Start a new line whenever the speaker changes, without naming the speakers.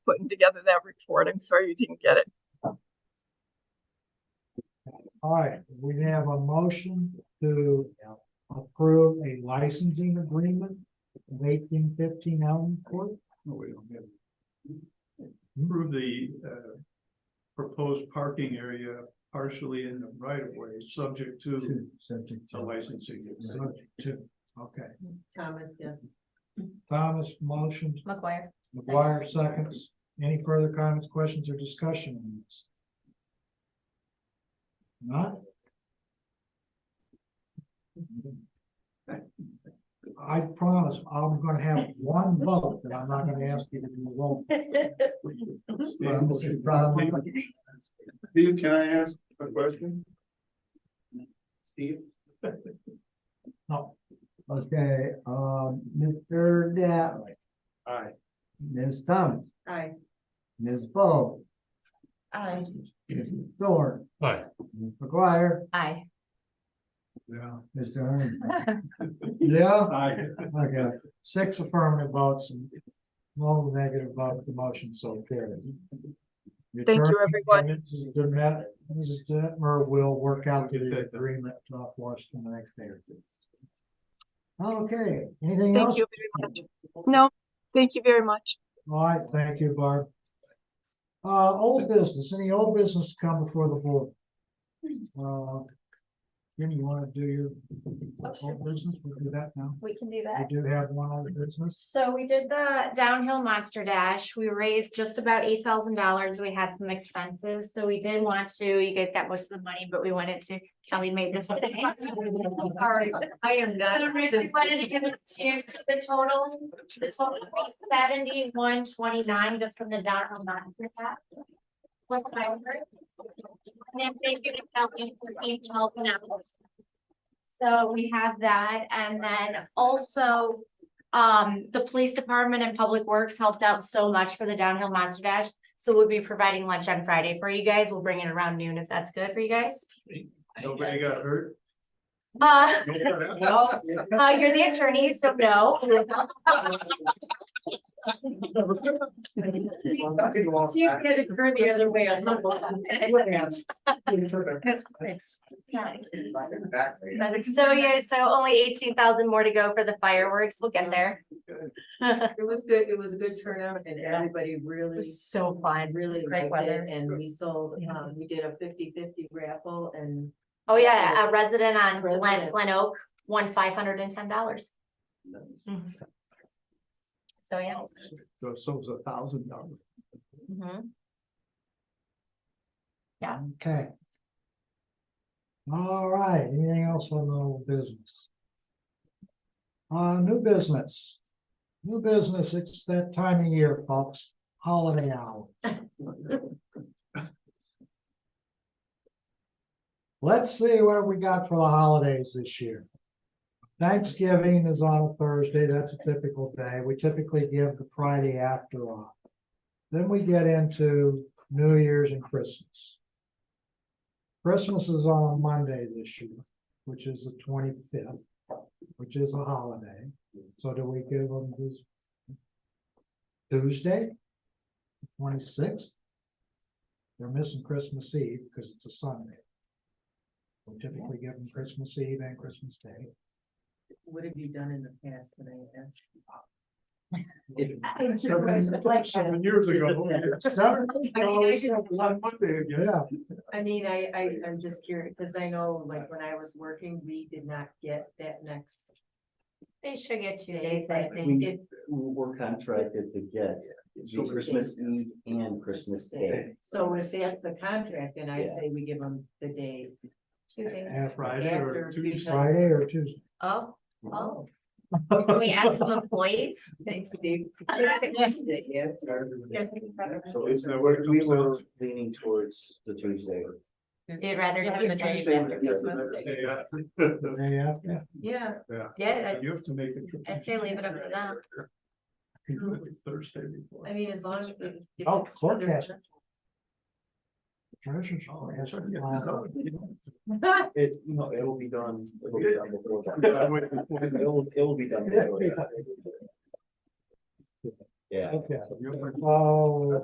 putting together that report. I'm sorry you didn't get it.
All right, we have a motion to approve a licensing agreement with eighteen fifteen Elm Court.
No, we don't have. Improve the uh proposed parking area partially in the right of way, subject to
Subject
to licensing.
Subject to, okay.
Thomas, yes.
Thomas motions,
McGuire.
McGuire seconds. Any further comments, questions, or discussion on this? Not? I promise I'm gonna have one vote that I'm not gonna ask you to do a vote.
Steve, can I ask a question? Steve?
No. Oh, Okay, um, Mr. Dattley,
Aye.
Ms. Thomas,
Aye.
Ms. Bo,
Aye.
Mr. Thorne.
Aye.
Ms. McGuire,
Aye.
Yeah.
Mr. Herman. Yeah?
Aye.
Okay, six affirmative votes and no negative vote, the motion so carried. Your
Thank you,
turn,
everyone.
Mrs. Demett, Mrs. Detmer will work out
Get
the
that done.
agreement uh, for us in the next day or two. Okay, anything
Thank
else?
you very much. No, thank you very much.
All right, thank you, Barb. Uh, old business, any old business to come before the board? Uh, Jimmy, you wanna do your
sure.
old business? We'll do that now.
We can do
We
that.
do have one old business.
So we did the downhill monster dash. We raised just about eight thousand dollars. We had some expenses, so we did want to, you guys got most of the money, but we wanted to, Kelly made this. today. Sorry.
I am not.
So Rachel wanted to give us to, so the total, the total was seventy-one twenty-nine, just from the downhill monster dash. What I heard. And thank you to Kelly for being helping out. So we have that, and then also um, the police department and public works helped out so much for the downhill monster dash. So we'll be providing lunch on Friday for you guys. We'll bring it around noon if that's good for you guys.
Nobody got hurt?
Uh,
No.
uh, you're the attorney, so no.
See if you had to turn the other way on. That's great.
So yeah, so only eighteen thousand more to go for the fireworks. We'll get there. It
It was good, it was a good turnout and everybody really,
was so fun, really
really
great
liked it.
weather.
And we sold, um, we did a 50-50 raffle and
Oh, yeah, a resident on Glen,
Resident.
Glen Oak won five hundred and ten dollars. So, yeah.
So so it's a thousand dollars.
Mhm.
Okay. All right, anything else on the old business? Uh, new business. New business, it's that time of year, folks, holiday hour. Let's see what we got for the holidays this year. Thanksgiving is on a Thursday, that's a typical day, we typically give the Friday after off. Then we get into New Year's and Christmas. Christmas is on a Monday this year, which is the twenty-fifth, which is a holiday. So do we give them this Tuesday? Twenty-sixth? They're missing Christmas Eve because it's a Sunday. We typically give them Christmas Eve and Christmas Day.
what have you done in the past that I asked?
Seven seven years ago.
Seven,
On Monday again.
yeah,
I mean, I, I, I'm just curious, because I know like when I was working, we did not get that next
They should get two
days,
days,
I think, if,
We're contracted to get
So
the Christmas Eve and Christmas Day.
so if that's the contract, then I
Yeah.
say we give them the day
two days.
and
Friday or
After,
Tuesday.
because-
Friday or Tuesday.
Oh,
Oh,
can we add some employees?
thanks, Steve.
So
Isn't that what it
we
comes down
were
to?
leaning towards the Tuesday.
You'd rather
Yeah,
do
it's
Tuesday.
Tuesday with Christmas.
Yeah.
the Day after.
Yeah,
Yeah.
Yeah,
You have to make it.
I say leave it up to them.
It's Thursday before.
I mean, as long as. it- if
Oh,
it's
clerk
under-
has Treasurer's
Oh,
Office
that's right. Yeah.
has-
No, you
It, no, it'll be done, it'll be done before that.
don't.
It'll, it'll be done before that. Yeah.
Okay,
You're-
oh.